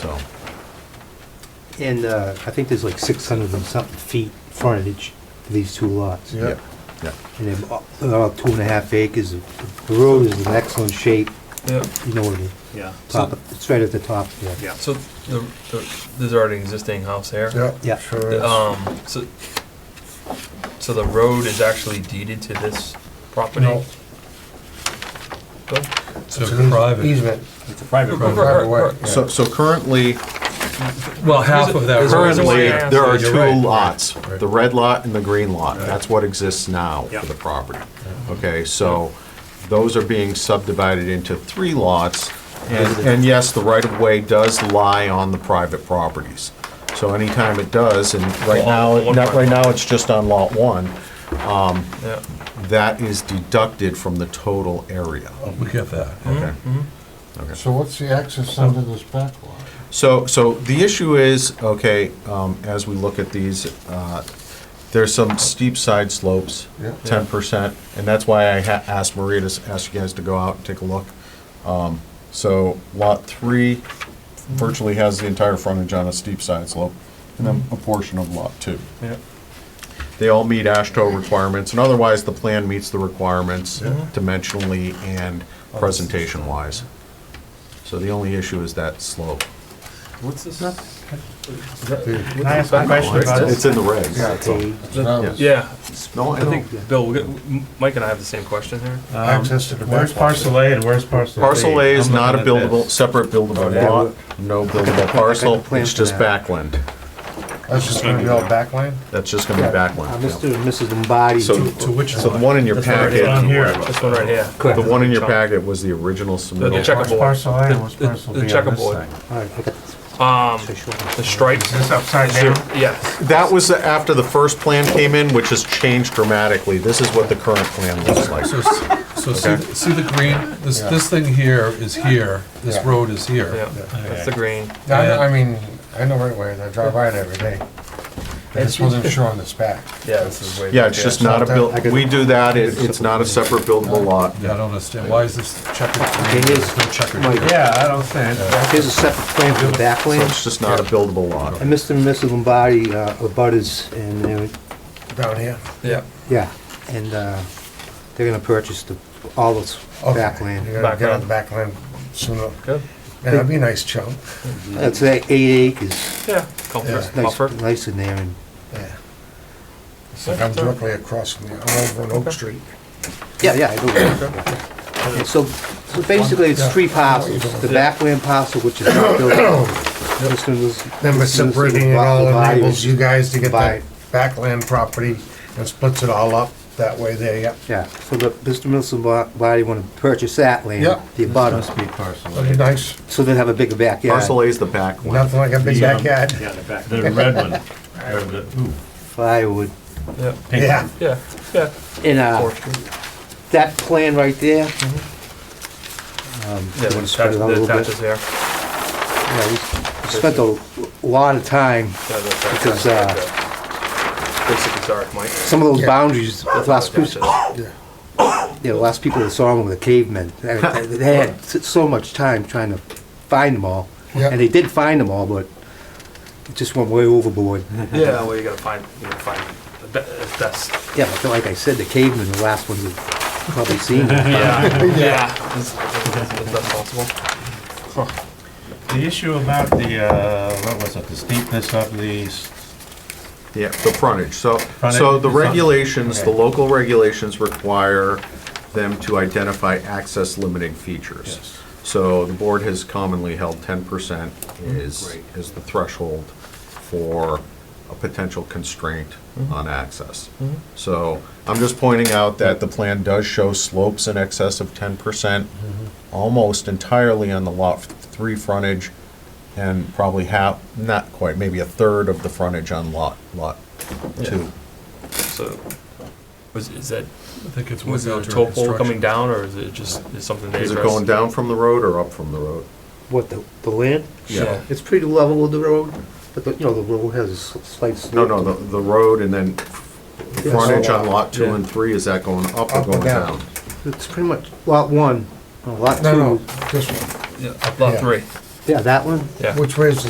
So, And uh, I think there's like 600 and something feet frontage to these two lots. yeah, yeah. And they're all- they're all two and a half acres. The road is in excellent shape, Yeah, you know, the Yeah. top, it's right at the top there. Yeah. so the, the, there's already an existing house there? Yeah. Yeah. Sure The, is. Um, so, so the road is actually deeded to this property? No. Go. It's So an eas- private. Easement. It's a private Right, road. right, private way. right. Yeah. So, so currently, Well, half of that. There's a road is- reason why I currently, asked there are that. You're two right. lots, Right. the red lot and the green lot. That's what exists now Yep. for the property. Okay, so those are being subdivided into three lots. And, and yes, the right-of-way does lie on the private properties. So anytime it does, and right now, Well, on one not, right property. now, it's just on lot one, Yeah, that is deducted from the total area. We get that. Okay. So what's the access Oh. under this back lot? So, so the issue is, okay, um, as we look at these, uh, there's some steep side slopes, Yeah. ten percent, and that's why I ha- asked Maria to s- ask you guys to go out and take a look. Um, so lot three virtually has the entire frontage on a steep side slope, and then a portion of lot two. yeah. They all meet ASHTO requirements, and otherwise the plan meets the requirements dimensionally and presentation wise. So the only issue is that slope. What's this? Can I ask a question about It's this? in the regs. that's all. Okay. Yeah. Yeah, No, I I know. think, Bill, we got- M- Mike and I have the same question here. Access to the back lot. Um, Where's parcel A and where's parcel B? Parcel A is I'm not a looking at buildable, this. separate buildable yeah. lot, no buildable parcel, it's just backland. That's just gonna be all backland? That's just gonna be Uh, backland. Mr. yeah. and Mrs. Lombardi. So, To which so the lot? one in your packet, down here. This one right here. the Correct. All one in your packet was the original submittal. check- Where's parcel A and where's The- parcel B the on this checkerboard. thing? right, I got this. Um, So show the them. stripes, Is this upside down? yes. That was after the first plan came in, which has changed dramatically. This is what the current plan looks like. So, s- so see, Okay. th- see the green, this, this thing here is here, this Yeah. road is Yeah, here. that's the green. No, I know- I mean, I know right where, it is. I drive by it every day. I just wasn't sure on this back. Yeah, this is way. Yeah, it's just not a build, we do that, it- it's not a separate buildable lot. Yeah, I don't understand, why is this checkered green, It is. there's no checkered Mike. here? Yeah, I don't think. Here's a separate plan for the So backland. It's just not a buildable lot. And Mr. and Mrs. Lombardi uh, are butters and they're, Down here? Yeah, yeah, and uh, they're gonna purchase the, all this Okay. backland. You're gonna get on the backland sooner. good. And that'd be a nice chunk. That's like eight acres. Yeah, Yeah. comfort, Nice, buffer. nice in there and Yeah. It's like I'm directly across from you. I'm over on Oak Street. Yeah, yeah, I do. And So, so basically, it's three parcels, the backland parcel, which is not built. This one was- Then this one by was separating it all divided. enables you guys to get Buy- that backland property and splits it all up that way there, yep. Yeah, so the, Mr. Milson body wanna purchase that land, Yeah. the abutter, That'd be nice. so they'll have a bigger backyard. Parcel A is the back one. Nothing like a um, big Yeah. backyard. Yeah, the back. The red one, or the, ooh, Firewood, Yeah, pink Yeah. one. yeah, yeah. and, uh, Fourth Street. that plan right there. um, Yeah, you wanna spread it out a the little bit? attaches there. Yeah, we Spent a lot of time, Yeah, the attaches. Because, uh, Basically, sorry, Mike. some of those Yeah. boundaries, the last Attaches. people, Yeah, the last people that saw them were the cavemen. They had- they had s- so much time trying to find them all. Yep. And they did find them all, but it just went way overboard. Yeah, well, you gotta find, you gotta find the be- the best. Yeah, but like I said, the cavemen, the last ones we've probably seen. Yeah, yeah. As Uh, best possible. The issue about the, uh, what was it, the steepness of the, s- Yeah, the frontage. So, so Frontage the is on- regulations, the okay. local regulations require them to identify access limiting features. So the board has commonly held ten percent Mm-hmm. is, is the threshold for a potential constraint Mm-hmm. on access. So I'm just pointing out that the plan does show slopes in excess of ten percent, Mm-hmm. almost entirely on the lot three frontage, and probably half, not quite, maybe a third of the frontage on lot, lot two. So, was, is that, I think it's was window the during tow pole construction. coming down, or is it just, is something they Is it addressed? going down from the road or up from the road? What, the, the land? Yeah. It's pretty level with the road, but the, you know, the road has a s- slight No, slope. no, the, the road and then the Yeah, frontage so, uh, on lot two yeah. and three, is that going up or Up or going down? down? It's pretty much lot one, uh, lot No, no, two. this one. Yeah, lot Yeah. three. Yeah, that one? Yeah. Which way is the